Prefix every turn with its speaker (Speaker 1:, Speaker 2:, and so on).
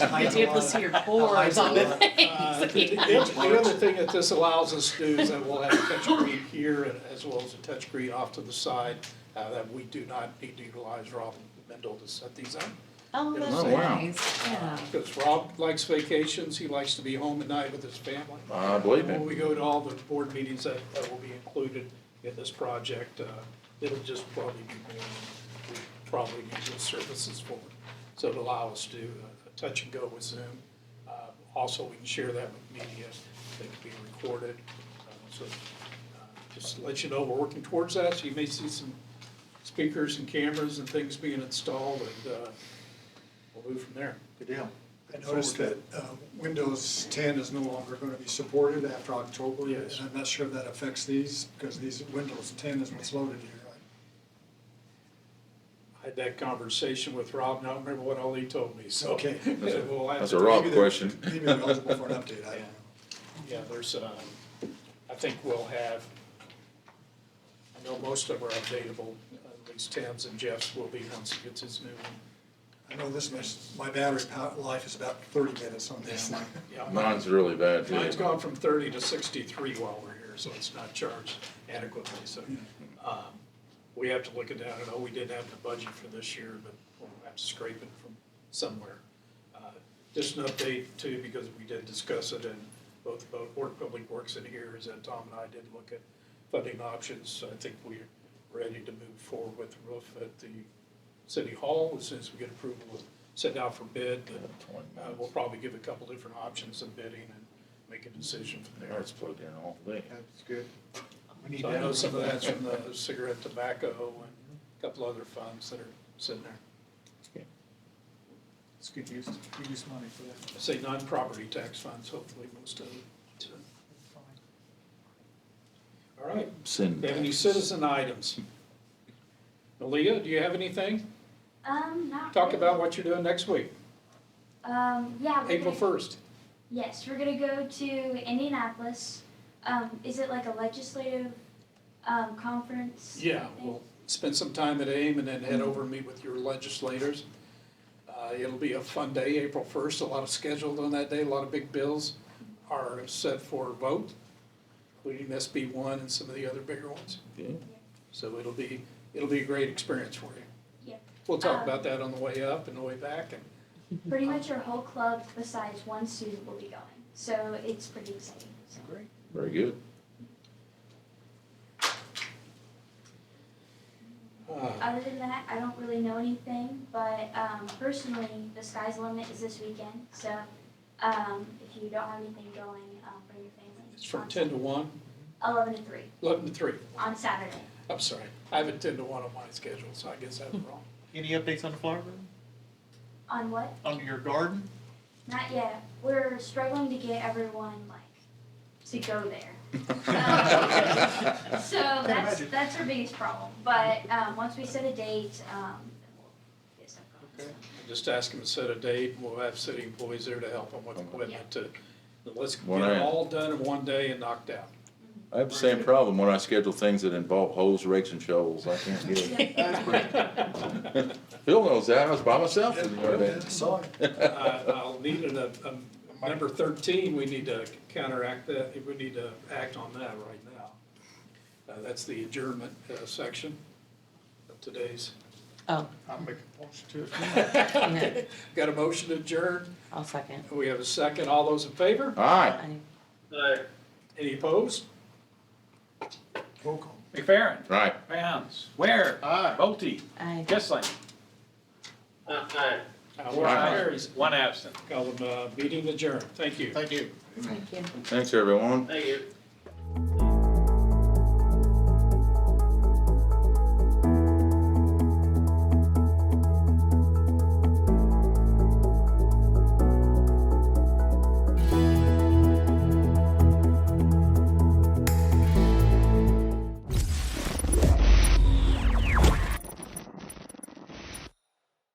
Speaker 1: I did was hear
Speaker 2: I
Speaker 1: boards on the
Speaker 2: know. Uh,
Speaker 1: things.
Speaker 2: The the other thing that this allows us to do is that we'll have a touchscreen here and as well as a touchscreen off to the side uh, that we do not need to utilize Rob Mendel to set these up.
Speaker 1: Oh,
Speaker 2: Oh,
Speaker 1: that's
Speaker 3: wow.
Speaker 1: nice, yeah.
Speaker 2: Because Rob likes vacations, he likes to be home at night with his family.
Speaker 3: I believe
Speaker 2: When
Speaker 3: it.
Speaker 2: we go to all the board meetings that, that will be included in this project, uh, it'll just probably be more, we probably use those services for. So it'll allow us to uh, touch and go with Zoom. Uh, Also, we can share that with media, they can be recorded. Uh, So uh, just to let you know, we're working towards that, so you may see some speakers and cameras and things being installed and uh, we'll move from there.
Speaker 4: Good deal. I noticed that uh, Windows 10 is no longer going to be supported after October.
Speaker 2: Yes.
Speaker 4: And I'm not sure if that affects these, because these Windows 10 is what's loaded here.
Speaker 2: I had that conversation with Rob, and I don't remember what all he told me, so.
Speaker 4: Okay.
Speaker 2: That's a- we'll have
Speaker 3: That's
Speaker 2: to-
Speaker 3: a Rob
Speaker 4: Maybe they're-
Speaker 3: question.
Speaker 4: Maybe they're eligible for an update, I don't know.
Speaker 2: Yeah, there's, um, I think we'll have, I know most of our updatable, at least Tim's and Jeff's will be once he gets his new one.
Speaker 4: I know this, mess- my battery pow- life is about 30 minutes on this.
Speaker 2: Yeah.
Speaker 3: Mine's really bad
Speaker 2: Mine's
Speaker 3: too.
Speaker 2: gone from thirty to sixty-three while we're here, so it's not charged adequately, so, um, we have to look at that. I know we didn't have the budget for this year, but we'll have to scrape it from somewhere. Uh, Just an update too, because we did discuss it in both, both Board of Public Works and here, is that Tom and I did look at funding options. I think we're ready to move forward with the roof at the city hall as soon as we get approval, we'll send out for bid. Uh, we'll probably give a couple different options of bidding and make a decision from there.
Speaker 3: It's plugged in all day.
Speaker 4: That's good. We need
Speaker 2: So I know
Speaker 4: that.
Speaker 2: some of that's from the cigarette tobacco and a couple other funds that are sitting there.
Speaker 5: It's good use, good use money for that.
Speaker 2: I say non-property tax funds, hopefully most of them. so. All right,
Speaker 3: Send.
Speaker 2: Do you have any citizen items? Leah, do you have anything?
Speaker 6: Um, not
Speaker 2: Talk
Speaker 6: really.
Speaker 2: about what you're doing next week,
Speaker 6: Um, yeah. we're
Speaker 2: April
Speaker 6: gonna-
Speaker 2: first.
Speaker 6: Yes, we're gonna go to Indianapolis. Um, is it like a legislative um, conference?
Speaker 2: Yeah,
Speaker 6: thing?
Speaker 2: we'll spend some time at AIM and then head over and meet with your legislators. Uh, It'll be a fun day, April 1st, a lot of scheduled on that day, a lot of big bills are set for a vote, including SB 1 and some of the other bigger ones.
Speaker 3: Yeah.
Speaker 2: So it'll be, it'll be a great experience for you.
Speaker 6: Yeah.
Speaker 2: We'll talk
Speaker 6: Um,
Speaker 2: about that on the way up and the way back, and
Speaker 6: Pretty much our whole club, besides one student, will be going. So it's pretty exciting. So.
Speaker 5: Great.
Speaker 3: Very good.
Speaker 2: uh,
Speaker 6: Other than that, I don't really know anything, but um, personally, the sky's the limit is this weekend. So um, if you don't have anything going, um, bring your family.
Speaker 2: it's from
Speaker 6: on
Speaker 2: 10 to 1,
Speaker 6: 11 to 3
Speaker 2: 11 to 3,
Speaker 6: on Saturday.
Speaker 2: I'm sorry. I have a 10 to 1 on my schedule, so I guess I'm wrong.
Speaker 5: Any updates on the flower garden?
Speaker 6: On what?
Speaker 5: On your garden?
Speaker 6: Not yet. We're struggling to get everyone like to go there. so that's
Speaker 5: imagine.
Speaker 6: that's our biggest problem. But um, once we set a date, um, then we'll get stuff going.
Speaker 5: Okay.
Speaker 2: Just ask them to set a date, we'll have city employees there to help them with equipment to, let's get
Speaker 3: One
Speaker 2: it
Speaker 3: hour.
Speaker 2: all done in one day and knocked out.
Speaker 3: I have the same problem when I schedule things that involve holes, rakes and shovels. I can't get it. Phil knows that. I was by myself the other
Speaker 4: Yeah,
Speaker 3: day.
Speaker 4: Sorry.
Speaker 2: I- Uh, I'll need a, a, number thirteen, we need to counteract that, we need to act on that right now. Uh, that's the adjournment, uh, section of today's.
Speaker 7: Oh,
Speaker 5: I'll make a motion to it.
Speaker 7: okay.
Speaker 2: Got a motion to adjourn.
Speaker 7: I'll second.
Speaker 2: we have a second, all those in favor?
Speaker 3: Aye.
Speaker 7: I-
Speaker 2: Any opposed?
Speaker 4: Roll call.
Speaker 5: McFerrin,
Speaker 3: Right.
Speaker 5: Bounds, Ware,
Speaker 4: Aye.
Speaker 5: Bolte,
Speaker 7: I
Speaker 5: Kissling,
Speaker 2: Uh, motion
Speaker 3: Aye.
Speaker 2: carries.
Speaker 5: one absent.
Speaker 2: Call them, uh, meeting adjourned, thank you.
Speaker 4: Thank you.
Speaker 7: Thank you.
Speaker 3: Thanks, everyone.
Speaker 8: Thank you.